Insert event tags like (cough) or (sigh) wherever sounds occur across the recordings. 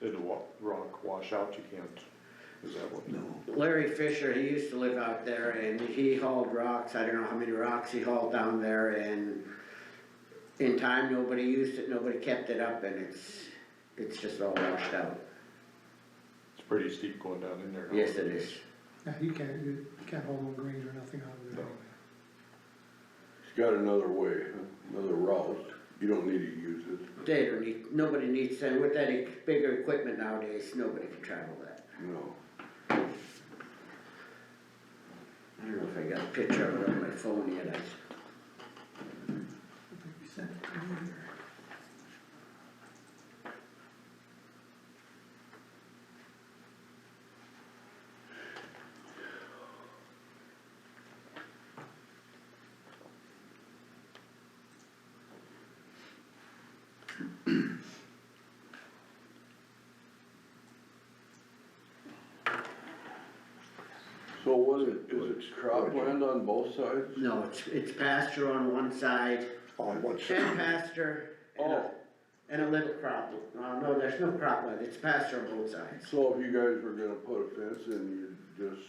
Did the wa- rock wash out, you can't, is that what? No. Larry Fisher, he used to live out there and he hauled rocks, I don't know how many rocks he hauled down there and in time, nobody used it, nobody kept it up and it's, it's just all washed out. It's pretty steep going down in there. now. Yes, it is. Yeah, you can't, you can't hold on greens or nothing out of there. No. It's got another way, another route, you don't need to use it, They don't need, nobody needs that, with that e- bigger equipment nowadays, nobody can travel that. no. I don't know if I got a picture of it on my phone yet, I, So was it, is it cropland on both sides? no, it's, it's pasture on one side, Oh, On what ten pasture and a, Oh. and a little crop, uh, no, there's no cropland, it's pasture on both sides. So if you guys were gonna put a fence in, you'd just,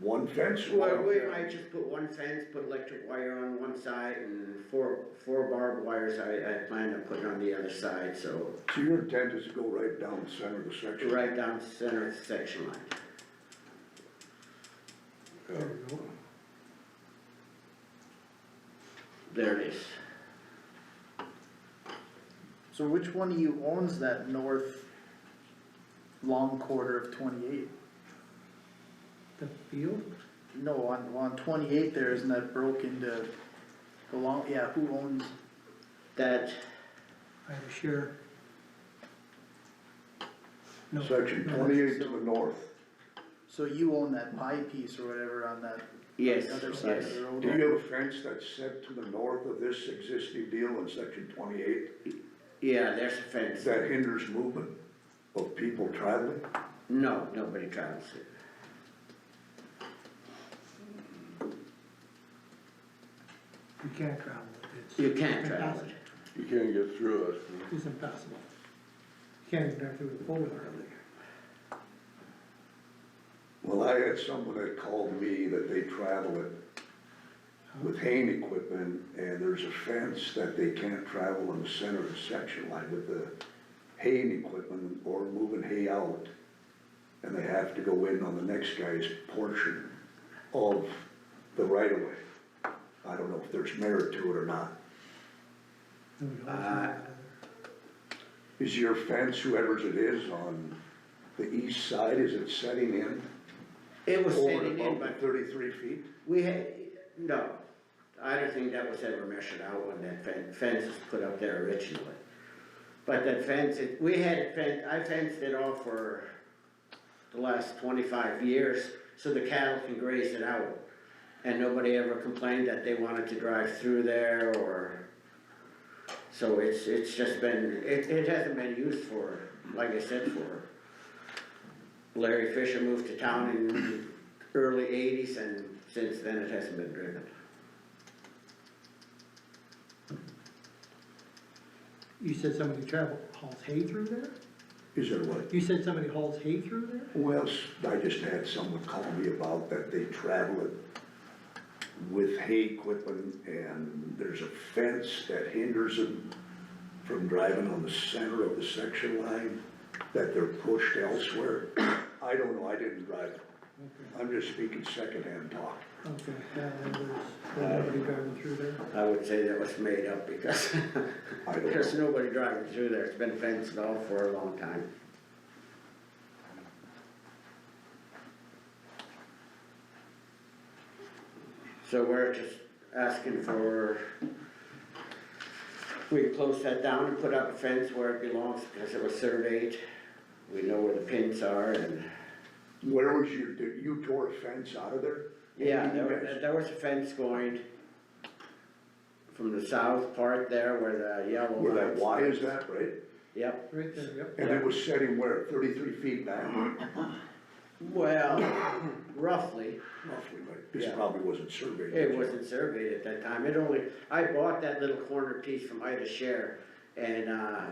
One fence Well, line. we might just put one fence, put electric wire on one side and four, four barbed wires I, I plan to put on the other side, so So your intent is to go right down the center of the section? right down the center of the section line. uh, There we go. There it is. So which one of you owns that north long quarter of twenty-eight? The field, No, on, on twenty-eight there, isn't that broke into the long, yeah, who owns, That, I have a share. No, Section no, twenty-eight to the north. so you own that pie piece or whatever on that yes, other side yes, of the road? Do you have a fence that's set to the north of this existing deal in section twenty-eight yeah, there's a fence. that hinders movement of people traveling? No, nobody travels it. You can't travel it, You can't travel it. you can't get through it, it's, it's impossible. You can't even drive through the pole barn over there. Well, I had someone that called me that they travel it with haying equipment, and there's a fence that they can't travel in the center of the section line with the haying equipment or moving hay out. And they have to go in on the next guy's portion of the right of way. I don't know if there's merit to it or not. Nobody owns Uh, it. Is your fence, whoever's it is, on the east side, is it setting in? It was over standing in, above the but Thirty-three feet? we had, no, I don't think that was ever measured out when that fen- fence was put up there originally. But that fence, it, we had it fen I fenced it off for the last twenty-five years, so the cattle can graze it out. And nobody ever complained that they wanted to drive through there or, so it's, it's just been, it, it hasn't been used for, like I said, for. Larry Fisher moved to town in the early eighties and since then it hasn't been driven. You said somebody travel, hauls hay through there? Is there what? You said somebody hauls hay through there? Well, s- I just had someone call me about that they travel it with hay equipment and there's a fence that hinders them from driving on the center of the section line, that they're pushed elsewhere. I don't know, I didn't drive it. I'm just speaking secondhand talk. Okay, yeah, then there's, nobody driving through there. I would say that was made up because (laughs) I don't there's know. nobody driving through there. It's been fenced off for a long time. So we're just asking for, we close that down and put up a fence where it belongs because it was surveyed. We know where the pins are and, Where was your, did you tore a fence out of there? yeah, there was, there was a fence going from the south part there where the yellow Where that lines- Y is that, right? Yep. Right there, yep. And it was setting where, thirty-three feet back? Well, (coughs) roughly, Roughly, like, this Yeah. probably wasn't surveyed. it wasn't surveyed at that time, it only, I bought that little corner piece from Ida Share, and, uh,